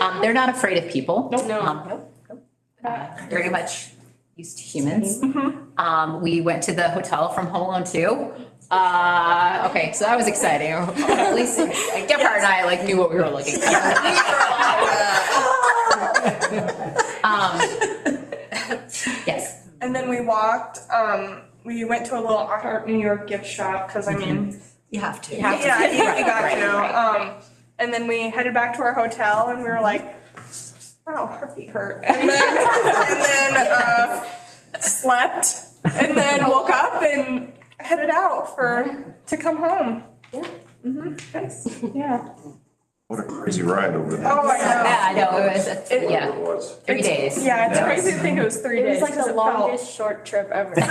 Um, they're not afraid of people. Nope. No. Um, Nope. Uh, Very much used to humans. Mm-hmm. Um, we went to the hotel from Home Alone Two. Uh, okay, so that was exciting. Or At least like, Gephardt and I like knew what we were looking for. Um, Yes. And then we walked, um, we went to a little I Heart New York gift shop, cause I mean, You have to. yeah, you really got Right, right, to, um, and then we headed back to our hotel and we were like, wow, her feet hurt. And then, and then, uh, slept and then woke up and headed out for, to come home. Mm-hmm. Yeah. What a crazy ride over there. Oh, I know. Yeah, I know, it was, It- yeah, It was. three days. Yeah, it's Yeah. crazy to think it was three It was days. like 'cause the felt- longest short trip ever. Well,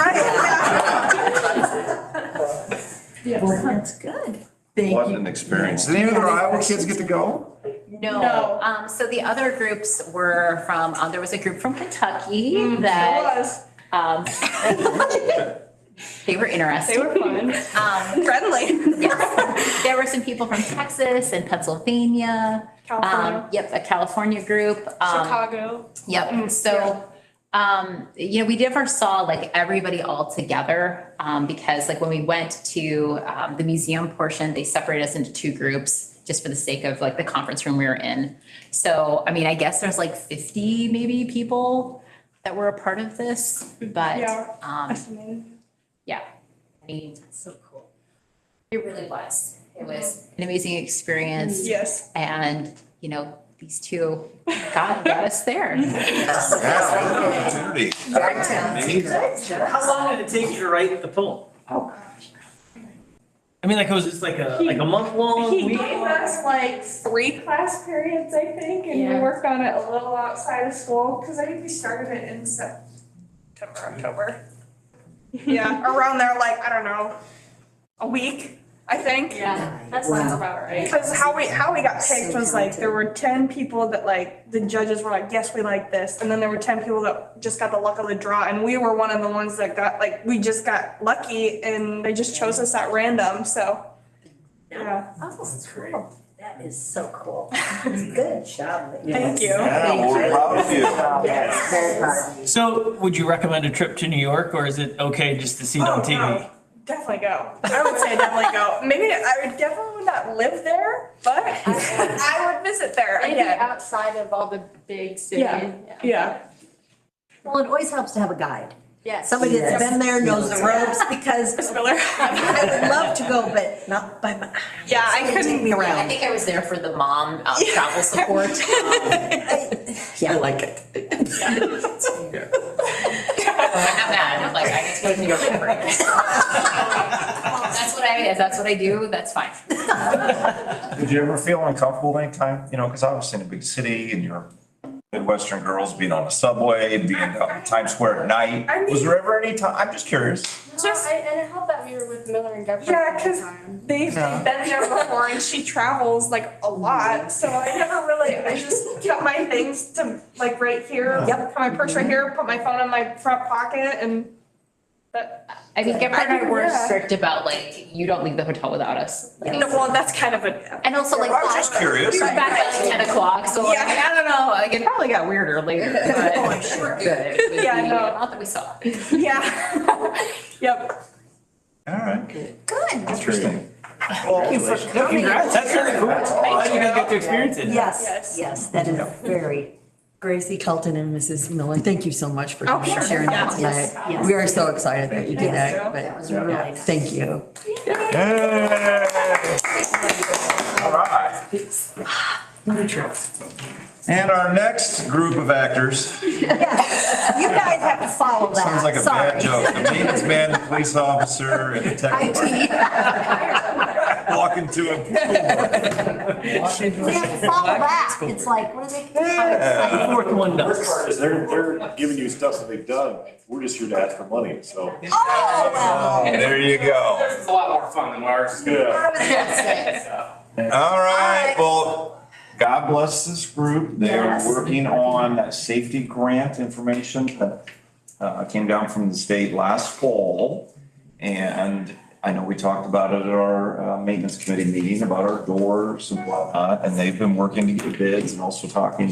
that's good. What Thank you. an experience. Did any of the Iowa kids get to go? No, No. um, so the other groups were from, uh, there was a group from Kentucky It that, was um, they were interesting. They were fun. Um, Friendly. yes. There were some people from Texas and Pennsylvania. Um, California, yep, a California group. um, Uh-huh. Chicago. Mm-hmm. Yep, so, um, you know, we never saw like everybody all together, um, because like when we went to, um, the museum portion, they separated us into two groups just for the sake of like the conference room we were in. So, I mean, I guess there's like fifty maybe people that were a part of this, Yeah. but, um, Fascinating. yeah. I mean, it's so cool. It really was. It was an amazing experience Yes. and, you know, these two got, got us there. Yes, opportunity. How long did it take you to write the poem? Oh, gosh. I mean, like it was just like a like a month long. He gave us like three class periods, I think, and we Yeah. worked on it a little outside of school, because I think we started it in September, October. Yeah, around there, like, I don't know, a week, I think. Yeah, that sounds about Because how we, how we got picked was like, there were ten people that like, the judges were like, yes, we like this, and then there were ten people that just got the luck of the draw, and we were one of the ones that got, like, we just got lucky, and they just chose us at random, so. Yeah, Oh, That's great. That is so cool. Good job. ladies. thank you. Yeah, well, we're proud of you. Yes, very proud of you. So, would you recommend a trip to New York, or is it okay just to see it on Oh, TV? no. Definitely go. I would say definitely go. Maybe I would definitely would not live there, but I would visit there Maybe again. outside of all the big city. Yeah. Yeah. Well, it always helps to have a guide. Yes. Somebody that's been there, knows the ropes, because Miss Miller. I would love to go, but not by my, Yeah, I somebody take couldn't. me I around. think I was there for the mom um, travel support. Um, Yeah, I like it. I'm not mad. I'm like, I get to go to New York for free. That's what I, if that's what I do, that's fine. Did you ever feel uncomfortable anytime, you know, because obviously in a big city and you're Midwestern girls being on the subway, being out in Times Square at night, was there ever any time, I'm just curious. Just- Just, and it helped that we were with Miller and Gephardt. Yeah, all the 'cause- time. They've Yeah. been there before and she travels like a lot, so I never really, I just kept my things to like right here. Yep. Put my purse right here, put my phone in my front pocket and that, I mean, Gephardt and I were Yeah. strict about like, you don't leave the hotel without us. Like, No, well, that's kind of a. And also like, I'm just curious. we were back at like ten o'clock, so like, Yeah. I don't know, like it probably got weirder later, but Oh, I'm sure. we're good. with Yeah, the no. amount that we saw. Yeah. Yep. All right, Good. interesting. No, congrats. That's really cool. That's awesome. Glad you guys got to experience it. Yes, Yes. yes, that is very. Gracie Colton and Mrs. Miller, thank you so much for Oh, coming sure. sharing that Yes, tonight. yes. We are so excited that you did Yes. that, That was but really yeah, nice. thank you. Yay. All right. And our next group of actors, You guys have to follow that. sounds like a bad joke, the maintenance man, the police officer, and the tech walk into a. We have to follow that. It's like, what are they? Yeah. Fourth one done. First part is they're, they're giving you stuff that they've done. We're just here to ask for money, so. Oh, well. There you go. It's a lot more fun than ours. Yeah. I was gonna say. All right, All right. well, God bless this group. They are Yes. working on that safety grant information that uh, came down from the state last fall. And I know we talked about it at our uh, maintenance committee meeting about our doors and whatnot, and they've been working to get bids and also talking